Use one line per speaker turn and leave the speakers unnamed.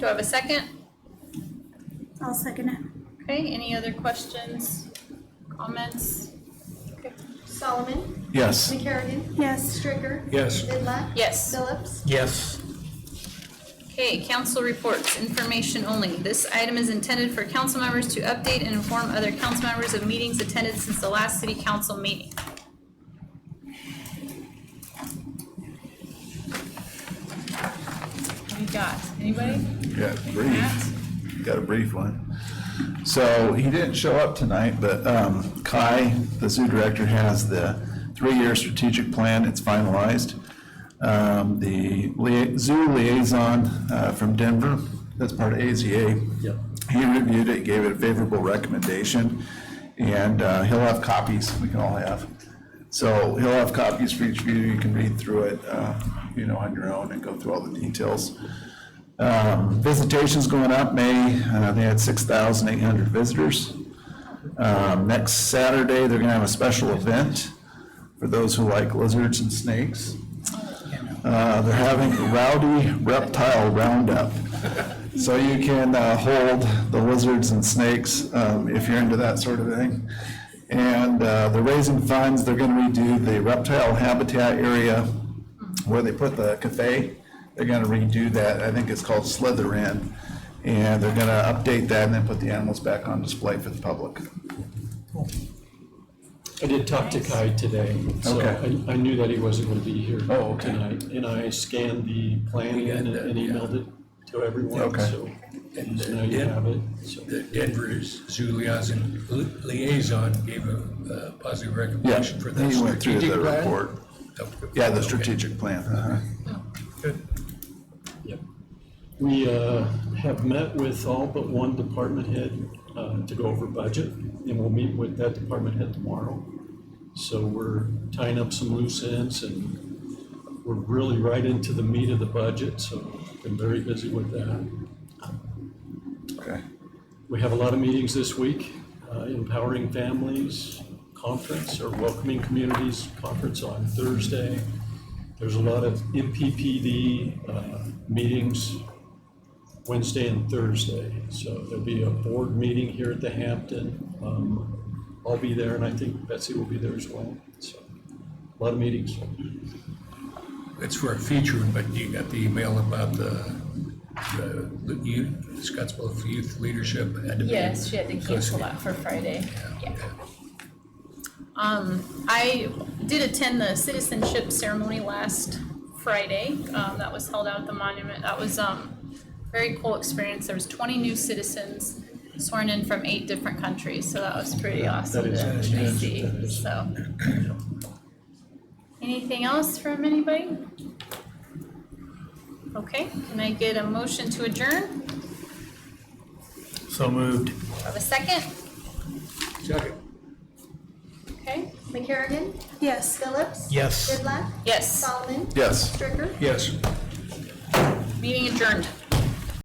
Do I have a second?
I'll second it.
Okay, any other questions, comments?
Solomon.
Yes.
McCarrigan.
Yes,
Stricker.
Yes.
Vidlac.
Yes.
Phillips.
Yes.
Okay, council reports, information only. This item is intended for council members to update and inform other council members of meetings attended since the last city council meeting. What do you got? Anybody?
Yeah,
Matt?
brief. Got a brief one. So he didn't show up tonight, but um, Kai, the zoo director, has the three-year strategic plan. It's finalized. Um, The lia- zoo liaison uh, from Denver, that's part of AZA.
Yep.
He reviewed it, gave it a favorable recommendation, and uh, he'll have copies, we can all have. So he'll have copies for each of you. You can read through it, uh, you know, on your own and go through all the details. Um, Visitation's going up, May, uh, they had 6,800 visitors. Um, Next Saturday, they're going to have a special event for those who like lizards and snakes. Uh, They're having a rowdy reptile roundup. So you can uh, hold the lizards and snakes um, if you're into that sort of thing. And uh, they're raising funds, they're going to redo the reptile habitat area where they put the cafe, they're gonna redo that, I think it's called Slither Inn. And they're gonna update that and then put the animals back on display for the public.
I did talk to Kai today, so
Okay.
I, I knew that he wasn't gonna be here
Oh, okay.
tonight. And I scanned the plan
We got
and
that,
and
yeah.
emailed it to everyone,
Okay.
so.
And
so now you
then-
have it, so.
The Denver's zoo liaison, liaison gave a uh, positive
Yeah,
recommendation for that
he went through
strategic
the
plan.
report.
Oh,
Yeah, the
okay.
strategic plan, uh-huh.
Yep. We uh, have met with all but one department head uh, to go over budget, and we'll meet with that department head tomorrow. So we're tying up some loose ends, and we're really right into the meat of the budget, so been very busy with that.
Okay,
We have a lot of meetings this week, uh, Empowering Families Conference or Welcoming Communities Conference on Thursday. There's a lot of MPPD uh, meetings Wednesday and Thursday. So there'll be a board meeting here at the Hampton. Um, I'll be there and I think Betsy will be there as well. So a lot of meetings.
It's for a feature, but you got the email about the, the the youth, Scottsville Youth Leadership. had to be-
Yes, she had to
So it's-
cancel that for Friday. Yeah.
Um, I did attend the citizenship ceremony last Friday, um, that was held out at the monument, that was, um, very cool experience, there was twenty new citizens sworn in from eight different countries, so that was pretty awesome
is-
to
that
to
is- that
see,
is-
so. Anything else from anybody? Okay, can I get a motion to adjourn?
So moved.
Have a second?
Second.
Okay,
McCarrigan.
yes.
Phillips.
Yes.
Vidlac.
yes,
Solomon.
yes.
Stricker.
Yes.
meeting adjourned.